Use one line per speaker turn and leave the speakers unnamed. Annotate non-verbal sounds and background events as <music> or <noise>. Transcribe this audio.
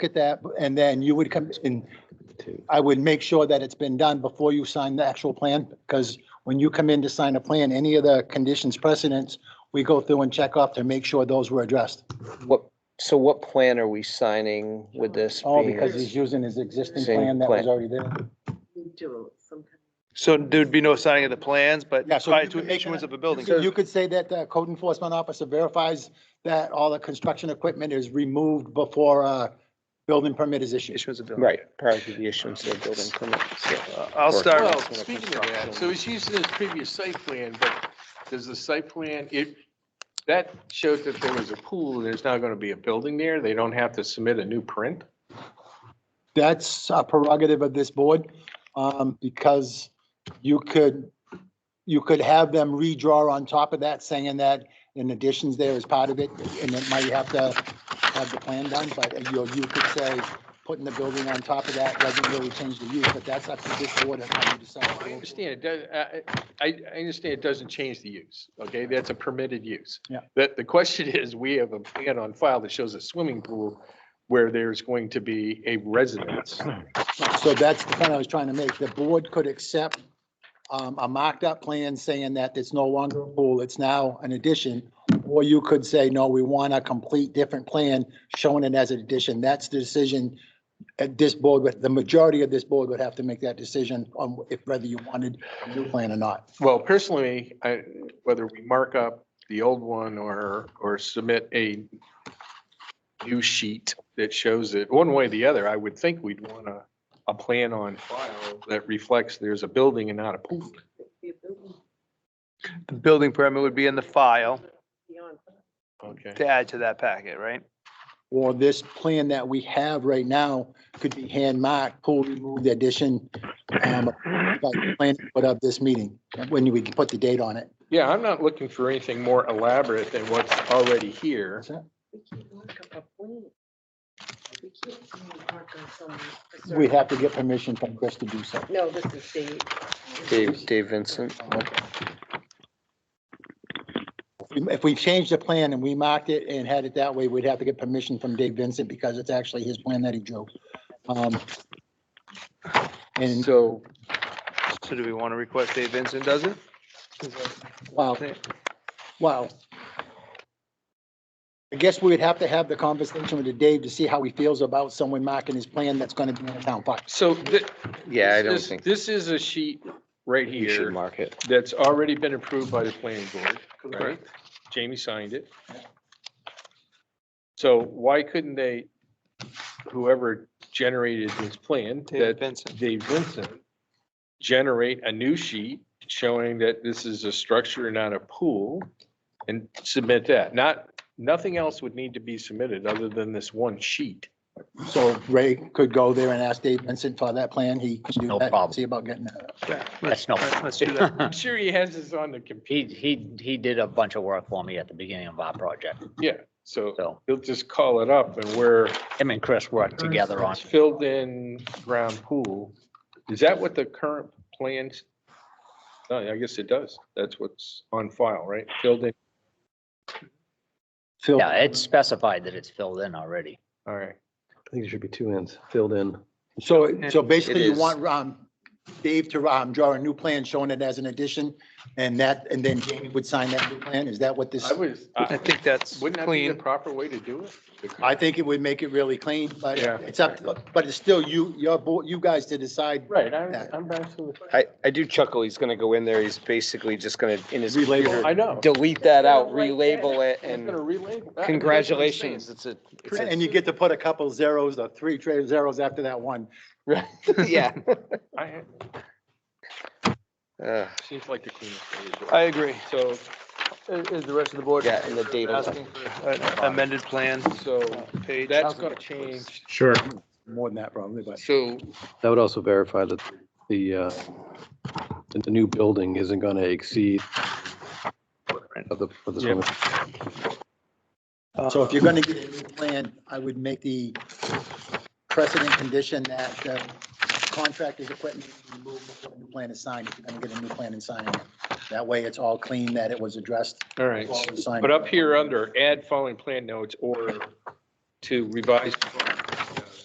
at that, and then you would come in, I would make sure that it's been done before you sign the actual plan, because when you come in to sign a plan, any of the conditions precedents, we go through and check off to make sure those were addressed.
What, so what plan are we signing with this?
All
being-
because he's using his existing
Same
plan that was
plan.
already there.
Do some kind
So there'd be no signing of the plans, but
Yeah, so
prior
you could
to
make
issuance
an-
of a building.
So you could say that the code enforcement officer verifies that all the construction equipment is removed before a building permit is issued.
Issuance of building.
Right, prior to the issuance of building permits, yeah.
Uh, I'll
Or-
start,
Well,
That's when it
speaking of
comes
that,
to-
so it's used in his previous site plan, but does the site plan, it, that showed that there was a pool, there's now gonna be a building there, they don't have to submit a new print?
That's a prerogative of this board, um, because you could, you could have them redraw on top of that, saying that in additions there is part of it, and it might have to have the plan done, but you, you could say, putting the building on top of that doesn't really change the use, but that's up to this board and how you
I
decide.
understand, it does, I, I, I understand it doesn't change the use, okay, that's a permitted use.
Yeah.
But the question is, we have a plan on file that shows a swimming pool where there's going to be a residence.
So that's the point I was trying to make. The board could accept um, a mocked-up plan saying that it's no longer a pool, it's now an addition. Or you could say, no, we want a complete different plan showing it as an addition. That's the decision at this board, but the majority of this board would have to make that decision on if whether you wanted a new plan or not.
Well, personally, I, whether we mark up the old one or, or submit a new sheet that shows it, one way or the other, I would think we'd want a, a plan on file that reflects there's a building and not a pool.
of be a building
the building permit would be in the file
beyond.
Okay.
to add to that packet, right?
Or this plan that we have right now could be hand-marked, pool removed, addition, um, but plan put up this meeting, when we can put the date on it.
Yeah, I'm not looking for anything more elaborate than what's already here.
That's it.
We can't mark up a plan. We can't mark on some. a
We
certain-
have to get permission from Chris to do so.
No, this is Dave.
Dave, Dave Vincent,
If we changed the plan and we marked it and had it that way, we'd have to get permission from Dave Vincent because it's actually his plan that he drew. Um, And,
So, so do we want to request Dave Vincent does it?
wow, wow. I guess we would have to have the conversation with Dave to see how he feels about someone marking his plan that's going to be in the town box.
So thi-
yeah, I don't
this-
think
This is a sheet right
you should
here
mark it.
that's already been approved by the planning board, right? Jamie signed it. So why couldn't they, whoever generated this plan,
Dave
that
Vincent.
Dave Vincent, generate a new sheet showing that this is a structure, not a pool, and submit that? Not, nothing else would need to be submitted other than this one sheet.
So Ray could go there and ask Dave Vincent for that plan. He can do
No
that,
problem.
see about getting that.
That's no.
Let's do that.
I'm sure he has this on the computer,
<laughs> He, he, he did a bunch of work for me at the beginning of our project,
so
so
he'll just call it up and we're
him and Chris worked together on.
Filled in ground pool. Is that what the current plans? No, I guess it does. That's what's on file, right? Filled in,
Phil,
Yeah, it's specified that it's filled in already.
all right.
I think it should be two ends, filled in.
So, so basically you
is.
want, um, Dave to, um, draw a new plan showing it as an addition and that, and then Jamie would sign that new plan? Is that what this?
I was,
I
I-
think that's
Uh, wouldn't that be the
clean.
proper way to do it? The-
I think it would make it really clean, but
Yeah.
it's up, to- but it's still you, your board, you guys to decide.
Right, I'm, I'm absolutely.
I, I do chuckle, he's gonna go in there, he's basically just gonna, in his
Relabel.
computer,
I know.
delete that out,
Right there.
relabel it,
It's gonna
and
relabel. That's what I'm
congratulations, it's a, it's a-
And you get to put a couple zeros or three tra- zeros after that one.
right, <laughs> yeah.
saying. I-
Uh,
Seems like the cleanest. way to do
I
it.
agree.
So,
Is, is the rest of the board?
Yeah, and the date on
Asking for an Uh, amended plan
so
page.
that's gonna change.
Sure.
More than that probably, but
So
That would also verify that the, uh, that the new building isn't going to exceed of the, for the swimming.
so if you're gonna get a new plan, I would make the precedent condition that the contractor's equipment is removed before the new plan is signed. If you're gonna get a new plan and sign it. That way it's all clean, that it was addressed.
All right,
Well, it's signed.
but up here under add following plan notes or to revise